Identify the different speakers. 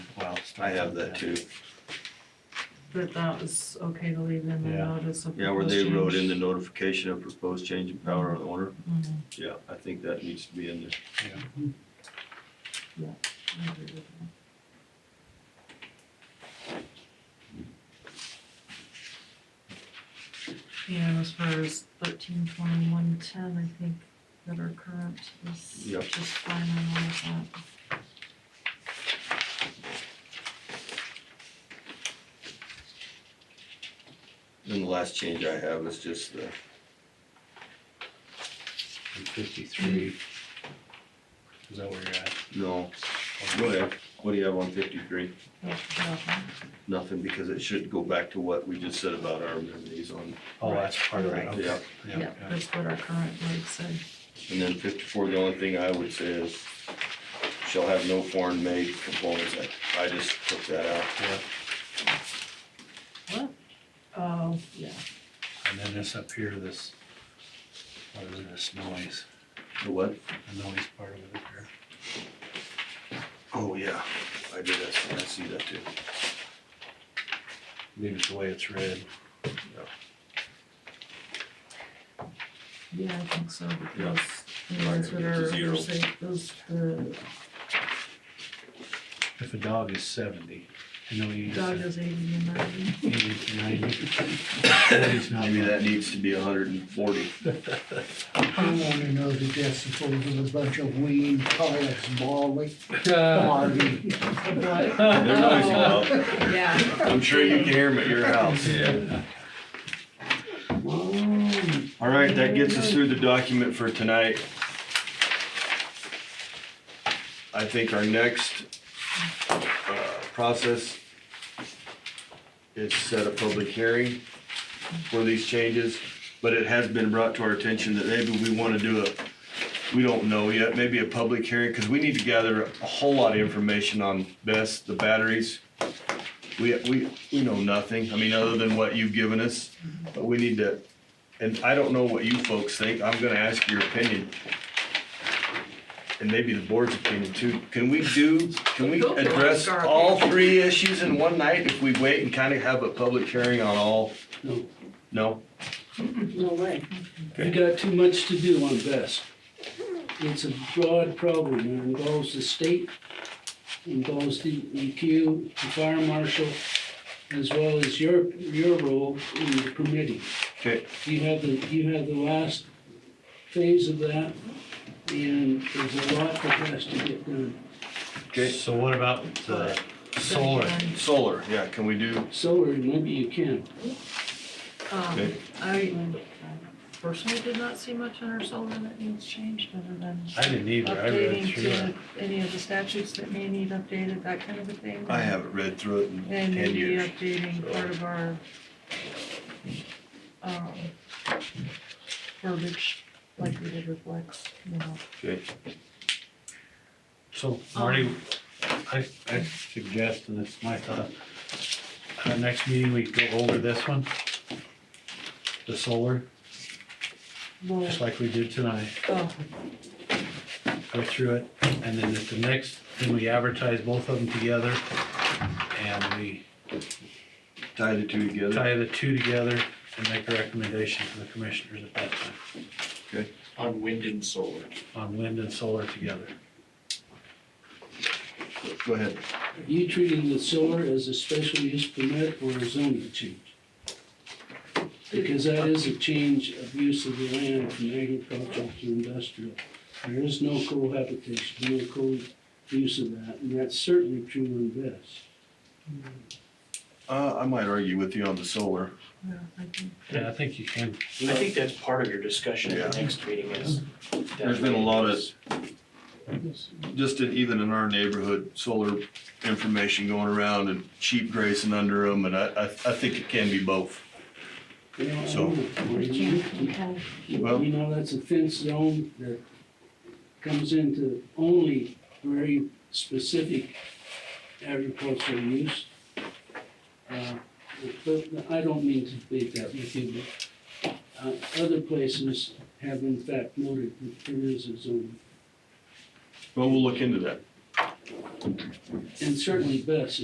Speaker 1: I have that too.
Speaker 2: that that was okay to leave in the
Speaker 3: Yeah.
Speaker 2: notice of.
Speaker 1: Yeah, where they
Speaker 2: proposed
Speaker 1: wrote in the
Speaker 2: change.
Speaker 1: notification of proposed change in power of owner.
Speaker 2: Mhm,
Speaker 1: Yeah, I think that needs to be in there.
Speaker 2: I agree with that. And as far as thirteen twenty-one ten, I think that are current is
Speaker 1: Yep.
Speaker 2: just fine on all of that.
Speaker 1: And the last change I have is just the,
Speaker 3: Fifty-three. Is that where you're at?
Speaker 1: no, go ahead. What do you have on fifty-three?
Speaker 2: Yeah, yeah.
Speaker 1: Nothing, because it should go back to what we just said about our amenities on,
Speaker 3: Oh, that's part of it,
Speaker 2: Right.
Speaker 3: okay.
Speaker 1: yeah.
Speaker 2: Yeah,
Speaker 3: yeah.
Speaker 2: that's what our current rate said.
Speaker 1: And then fifty-four, the only thing I would say is, shall have no foreign-made components. I- I just took that out.
Speaker 3: Yeah.
Speaker 2: What? Oh, yeah.
Speaker 3: And then this up here, this, what is this noise,
Speaker 1: The what?
Speaker 3: the noise part of it up here?
Speaker 1: Oh, yeah, I did, that. I see that too.
Speaker 3: Leave it the way it's read.
Speaker 2: Yeah, I think so,
Speaker 1: Yeah.
Speaker 2: because the ones that
Speaker 1: Right,
Speaker 2: are,
Speaker 1: zero.
Speaker 2: those, those, the
Speaker 3: If a dog is seventy, I know you
Speaker 2: dog
Speaker 3: said
Speaker 2: is eighty and ninety.
Speaker 3: eighty to ninety. Forty's not
Speaker 1: Maybe
Speaker 3: bad.
Speaker 1: that needs to be hundred and forty.
Speaker 4: I wanna know the decibels of a bunch of weed, piles, molly,
Speaker 3: Uh,
Speaker 4: Harvey.
Speaker 1: They're noisy
Speaker 2: Oh,
Speaker 1: though.
Speaker 2: Yeah,
Speaker 1: I'm sure you can hear them at your house. Yeah. All right, that gets us through the document for tonight. I think our next, uh, process is set a public hearing for these changes, but it has been brought to our attention that maybe we wanna do a, we don't know yet, maybe a public hearing, cause we need to gather a whole lot of information on this, the batteries. We, we, we know nothing, I mean, other than what you've given us, but we need to, and I don't know what you folks think, I'm gonna ask your opinion. And maybe the board's opinion too, can we do, can we
Speaker 2: Go for it,
Speaker 1: address all three issues in one night if we wait and kinda have a public hearing on all?
Speaker 5: No.
Speaker 1: No?
Speaker 5: No way. We got too much to do on best. It's a broad problem, it involves the state, involves the EQ, the fire marshal, as well as your, your role in the permitting.
Speaker 1: Okay,
Speaker 5: You have the, you have the last phase of that, and there's a lot that has to get done.
Speaker 1: okay,
Speaker 3: So what about the solar?
Speaker 1: solar, yeah, can we do,
Speaker 5: Solar, maybe you can.
Speaker 2: um,
Speaker 1: Okay.
Speaker 2: I personally did not see much in our solar that needs changed, other than
Speaker 3: I didn't either, I read
Speaker 2: updating
Speaker 3: through it.
Speaker 2: to any of the statutes that may need updated, that kind of a thing.
Speaker 1: I haven't read through it in
Speaker 2: And
Speaker 1: ten
Speaker 2: maybe
Speaker 1: years.
Speaker 2: updating part of our, um, verbiage, like we did with Lex, you know.
Speaker 1: Okay,
Speaker 3: So Marty, I, I suggest, and it's my thought, uh, next meeting we go over this one. The solar,
Speaker 2: Well,
Speaker 3: just like we did tonight,
Speaker 2: oh,
Speaker 3: go through it, and then at the next, then we advertise both of them together. And we
Speaker 1: tie the two together,
Speaker 3: tie the two together and make a recommendation to the commissioners at that time,
Speaker 6: on wind and solar.
Speaker 3: on wind and solar together.
Speaker 1: go ahead.
Speaker 5: Are you treating the solar as a special use permit or a zoning change? Because that is a change of use of the land from agricultural to industrial. There is no cohabitation, no co-use of that, and that's certainly true in Best.
Speaker 1: Uh, I might argue with you on the solar.
Speaker 2: yeah, I think,
Speaker 3: Yeah, I think you can,
Speaker 6: I think that's part of your discussion at the
Speaker 1: Yeah.
Speaker 6: next meeting is.
Speaker 1: There's been a lot of, just in, even in our neighborhood, solar information going around and cheap grazing under them, and I, I, I think it can be both.
Speaker 5: You know, I
Speaker 1: So-
Speaker 5: don't know.
Speaker 2: yeah,
Speaker 5: You- you-
Speaker 2: okay.
Speaker 1: Well-
Speaker 5: You know, that's a fence zone that comes into only very specific agricultural use. Uh, But I don't mean to debate that with you, but uh, other places have in fact noted that there is a zone.
Speaker 1: Well, we'll look into that.
Speaker 5: And certainly Best